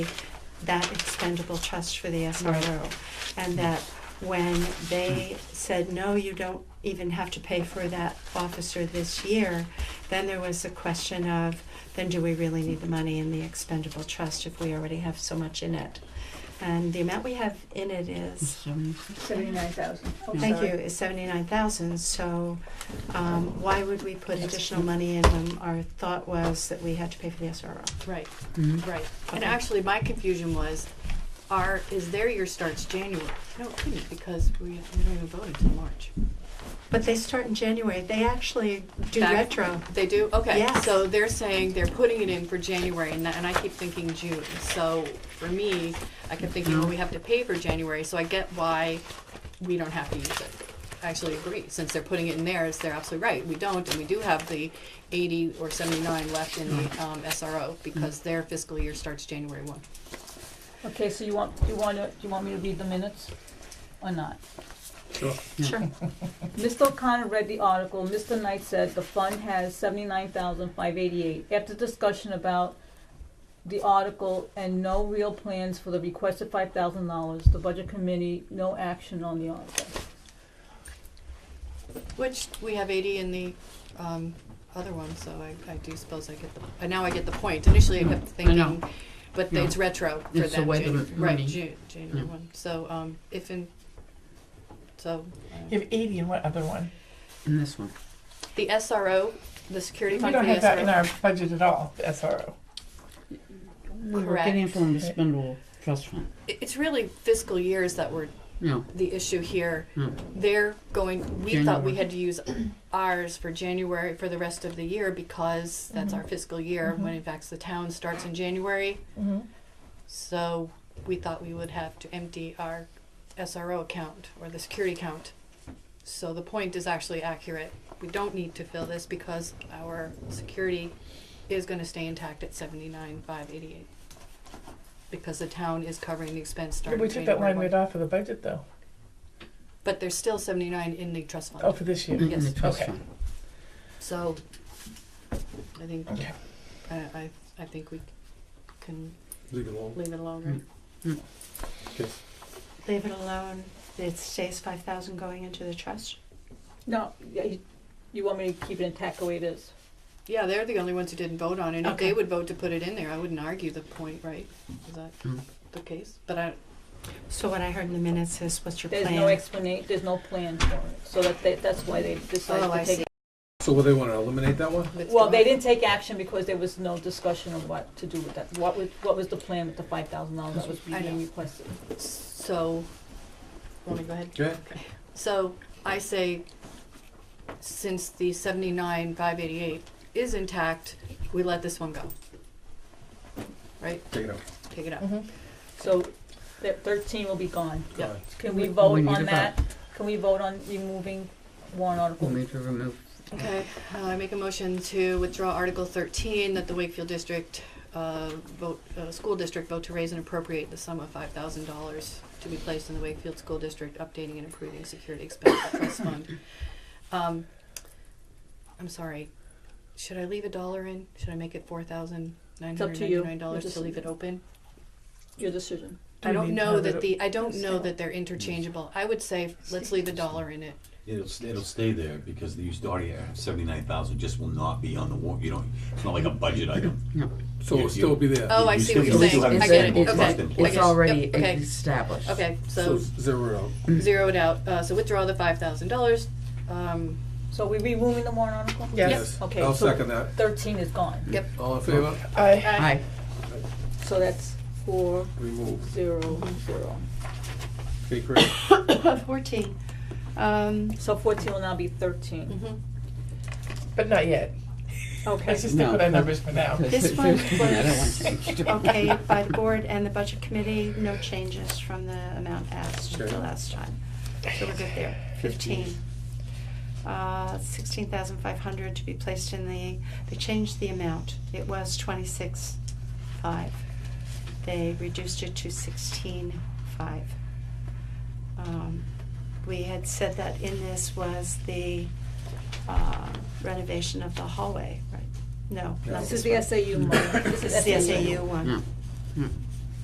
that expendable trust for the SRO. And that when they said, no, you don't even have to pay for that officer this year, then there was the question of, then do we really need the money in the expendable trust if we already have so much in it? And the amount we have in it is Mm-hmm. Seventy-nine thousand. Thank you, is seventy-nine thousand, so, um, why would we put additional money in when our thought was that we had to pay for the SRO? Right, Mhm. right. And Okay. actually, my confusion was, our, is their year starts January? No, it couldn't, because we, we don't even vote until March. But they start in January, they actually do Back- retro. They do? Okay, Yes. so they're saying they're putting it in for January, and, that- and I keep thinking June. So for me, I kept thinking, well, we have to pay for January, so I get why we don't have to use it. I actually agree, since they're putting it in theirs, they're absolutely right, we don't, and we do have the eighty or seventy-nine left in Mm-hmm. the, um, SRO, because their fiscal year starts January one. Okay, so you want, you want to, you want me to read the minutes or not? Sure. Mr. O'Connor read the article. Mr. Knight said the fund has seventy-nine thousand five eighty-eight. After discussion about the article and no real plans for the requested five thousand dollars, the budget committee, no action on the article. Which we have eighty in the um, other one, so I, I do suppose I get the, uh, now I get the point. Initially, I kept Mm-hmm. I know. thinking, but No. it's retro for them. It's the way the Janu- money- Right, June, January Yeah. one, so, um, if in, so, uh, You have eighty in what other one? In this one. the SRO, the security We fund for don't the have that in SRO. our budget at all, the SRO. We were getting it from the spindle trust fund. It- It's really fiscal years that were No, the issue here. no. They're going, we thought we January. had to use ours for January, for the rest of the year, because that's Mm-hmm. our fiscal year, when in fact the town starts in January. Mm-hmm. So we thought we would have to empty our SRO account or the security account. So the point is actually accurate. We don't need to fill this because our security is gonna stay intact at seventy-nine, five eighty-eight. Because the town is covering the expense Yeah, starting We took that January line right one. off of the budget though, But there's still seventy-nine in the trust oh, fund, for this year. In Mm-hmm. the Yes. trust Okay. fund. so I think, I, Okay. I, I think we can Leave it alone. leave it alone, right? Okay. Leave it alone, it stays five thousand going into the trust. No, yeah, you, you want me to keep it intact the way it is? Yeah, they're the only ones who didn't vote on it. If Okay. they would vote to put it in there, I wouldn't argue the point, right? Is that Mm. the case? But I, So what I heard in the minutes is, what's your There's plan? no explanation, there's no plan for it, so that they, that's why they decided Oh, I to take. see. So will they want to eliminate that one? it's Well, gone. they didn't take action because there was no discussion of what to do with that. What was, what was the plan with the five thousand dollars that was I know. being requested? So, want me to go ahead? Go ahead. So I say, since the seventy-nine, five eighty-eight is intact, we let this one go. Right? Take it out. Take it out. So that thirteen will be gone. Yeah. Fine. Can we We vote need to on that? Can we vote on removing warrant We'll article? Mm-hmm. need to remove. Okay, uh, I make a motion to withdraw Article thirteen, that the Wakefield District, uh, vote, uh, school district vote to raise and appropriate the sum of five thousand dollars to be placed in the Wakefield School District, updating and improving security expense trust fund. Um, I'm sorry, should I leave a dollar in? Should I make it four thousand nine up hundred to you. ninety-nine dollars Just- to leave it open? Your decision. I don't mean know have that it- the, I don't know that they're interchangeable. I would say, let's leave a dollar in it. It'll, s- it'll stay there because the used audio seventy-nine thousand just will not be on the warrant, you know, it's not like a budget item. So it'll You- still be there. Oh, I You see still- what you you're still saying. have I the get it. same Okay. trust in place. I It's get it. already Yep, okay. established. Okay, So so zero it out. zeroed out, uh, so withdraw the five thousand dollars, um, So we removing the warrant article? Yes. Okay, I'll so second that. thirteen is gone. yep. All in favor? Aye. Aye. So that's four, Remove. zero, zero. Okay, great. Fourteen, um, So fourteen will now be thirteen. But not yet. Okay. Let's just stick No. with our numbers for now. This one was okay, by the board and the budget committee, no changes from the amount asked the Okay. last time. So we're good there. Fifteen. Uh, sixteen thousand five hundred to be placed in the, they changed the amount. It was twenty-six five. They reduced it to sixteen five. Um, we had said that in this was the uh, renovation of the hallway, right? No, No. not This this is the one. SAU money. This is the SAU one. Mm.